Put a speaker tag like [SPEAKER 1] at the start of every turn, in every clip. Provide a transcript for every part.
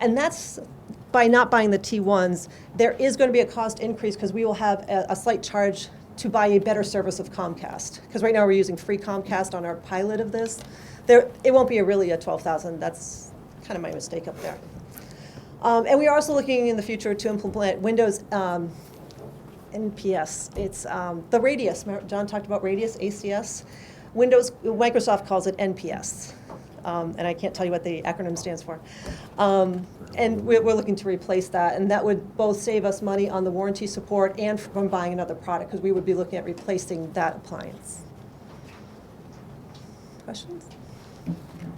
[SPEAKER 1] and that's, by not buying the T1s, there is going to be a cost increase because we will have a, a slight charge to buy a better service of Comcast. Because right now we're using free Comcast on our pilot of this. There, it won't be a really a 12,000, that's kind of my mistake up there. Um, and we are also looking in the future to implement Windows um, NPS. It's um, the Radius. Remember John talked about Radius, ACS. Windows, Microsoft calls it NPS. Um, and I can't tell you what the acronym stands for. Um, and we're, we're looking to replace that. And that would both save us money on the warranty support and from buying another product because we would be looking at replacing that appliance. Questions?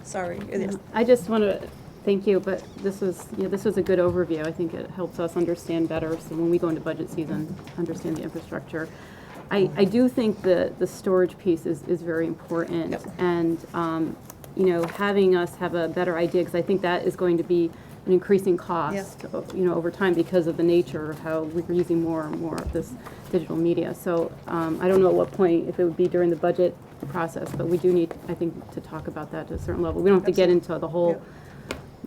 [SPEAKER 1] Sorry. Yes.
[SPEAKER 2] I just want to thank you, but this was, you know, this was a good overview. I think it helps us understand better, so when we go into budget season, understand the infrastructure. I, I do think the, the storage piece is, is very important.
[SPEAKER 1] Yep.
[SPEAKER 2] And, um, you know, having us have a better idea, because I think that is going to be an increasing cost, o- you know, over time because of the nature of how we're using more and more of this digital media. So um, I don't know at what point, if it would be during the budget process, but we do need, I think, to talk about that to a certain level. We don't have to get into the whole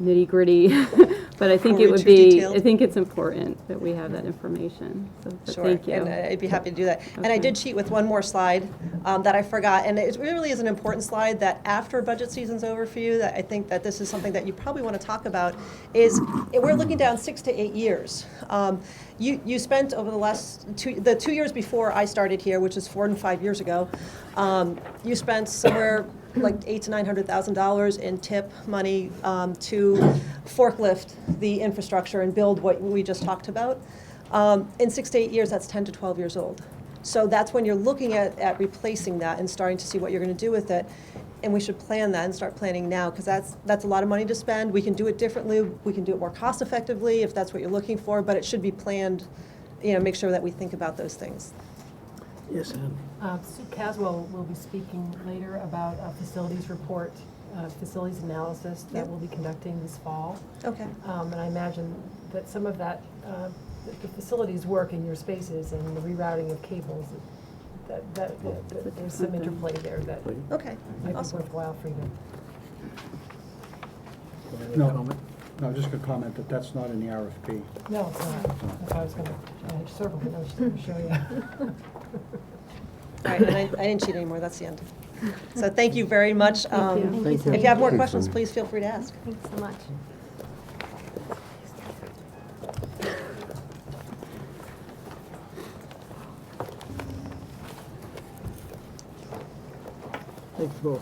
[SPEAKER 2] nitty gritty, but I think
[SPEAKER 1] Or
[SPEAKER 2] it would
[SPEAKER 1] too
[SPEAKER 2] be,
[SPEAKER 1] detailed.
[SPEAKER 2] I think it's important that we have that information. So but
[SPEAKER 1] Sure,
[SPEAKER 2] thank you.
[SPEAKER 1] and I- I'd be happy to do that. And I
[SPEAKER 2] Okay.
[SPEAKER 1] did cheat with one more slide um, that I forgot, and it really is an important slide that after budget season's over for you, that I think that this is something that you probably want to talk about, is eh, we're looking down six to eight years. Um, You, you spent over the last, two the two years before I started here, which is four and five years ago, um, you spent somewhere like eight to nine hundred thousand dollars in tip money um, to forklift the infrastructure and build what we just talked about. Um, in six to eight years, that's 10 to 12 years old. So that's when you're looking at, at replacing that and starting to see what you're going to do with it. And we should plan that and start planning now because that's, that's a lot of money to spend. We can do it differently. We can do it more cost effectively if that's what you're looking for, but it should be planned. You know, make sure that we think about those things.
[SPEAKER 3] Yes, Ann.
[SPEAKER 4] Uh, Sue Caswell will be speaking later about a facilities report, uh, facilities analysis
[SPEAKER 1] Yep.
[SPEAKER 4] that we'll be conducting this fall.
[SPEAKER 1] Okay.
[SPEAKER 4] Um, And I imagine that some of that, uh, the- the facilities work in your spaces and the rerouting of cables, that, that, that there's some interplay there that might
[SPEAKER 1] Okay.
[SPEAKER 4] be
[SPEAKER 1] Awesome.
[SPEAKER 4] worthwhile for you to
[SPEAKER 5] No, no, just gonna comment that that's not in the RFP.
[SPEAKER 4] No, it's not. That's why I was going to circle, but I was just going to show you.
[SPEAKER 1] All right. And I, I didn't cheat anymore. That's the end. So thank you very much. Um,
[SPEAKER 3] Thank
[SPEAKER 1] if you have more questions, please feel free to ask.
[SPEAKER 6] Thanks so much.
[SPEAKER 3] Thanks both.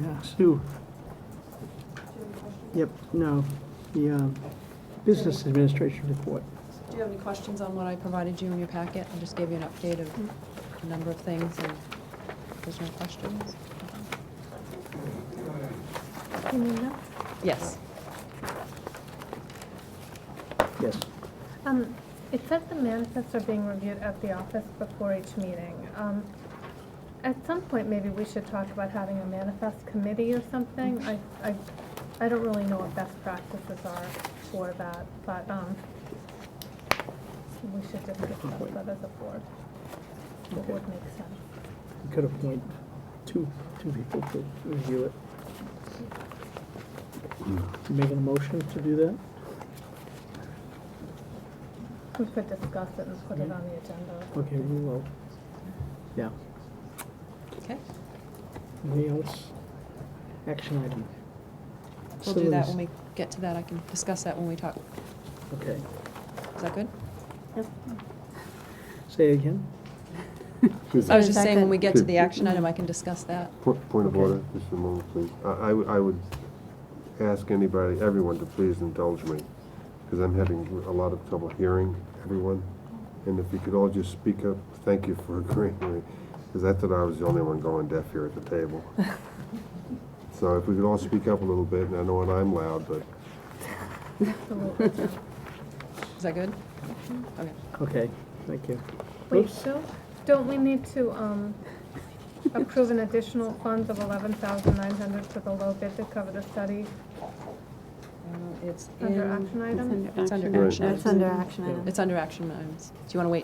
[SPEAKER 3] Yeah, Sue. Yep, no, the um, Business Administration Report.
[SPEAKER 7] Do you have any questions on what I provided you in your packet? I just gave you an update of
[SPEAKER 6] Mm-hmm.
[SPEAKER 7] a number of things, and if there's no questions?
[SPEAKER 6] You mean that?
[SPEAKER 7] Yes.
[SPEAKER 3] Yes.
[SPEAKER 8] Um, It says the manifests are being reviewed at the office before each meeting. Um, At some point, maybe we should talk about having a manifest committee or something. I, I, I don't really know what best practices are for that, but, um, we should just discuss that as a board. What would make sense?
[SPEAKER 3] We could appoint two, two people to review it. You Making a motion to do that?
[SPEAKER 8] We could discuss it and put it on the agenda.
[SPEAKER 3] Okay, we will. Yeah.
[SPEAKER 7] Okay,
[SPEAKER 3] Anything else? Action item.
[SPEAKER 7] we'll do that when we get to that. I can discuss that when we talk.
[SPEAKER 3] Okay.
[SPEAKER 7] Is that good?
[SPEAKER 3] Say it again.
[SPEAKER 7] I was
[SPEAKER 6] Is
[SPEAKER 7] just
[SPEAKER 6] that
[SPEAKER 7] saying, when
[SPEAKER 6] good? Mm-hmm.
[SPEAKER 7] we get to the action item, I can discuss that.
[SPEAKER 9] Po- Point of order, just a moment, please. I- I, w- I would ask anybody, everyone, to please indulge me, because I'm having a lot of trouble hearing everyone. And if you could all just speak up, thank you for agreeing with me, because I thought I was the only one going deaf here at the table. So if we could all speak up a little bit, and I know when I'm loud, but
[SPEAKER 7] Is that good? Okay.
[SPEAKER 3] Okay, thank you.
[SPEAKER 8] Wait,
[SPEAKER 3] Oops.
[SPEAKER 8] Bill, don't we need to um, approve an additional funds of 11,900 for the low bid to cover the study
[SPEAKER 7] Uh, It's
[SPEAKER 8] under
[SPEAKER 7] in,
[SPEAKER 8] action item?
[SPEAKER 7] it's under
[SPEAKER 9] Right.
[SPEAKER 7] action.
[SPEAKER 1] uh,
[SPEAKER 6] That's under action item.
[SPEAKER 7] It's under action items. Do you want to wait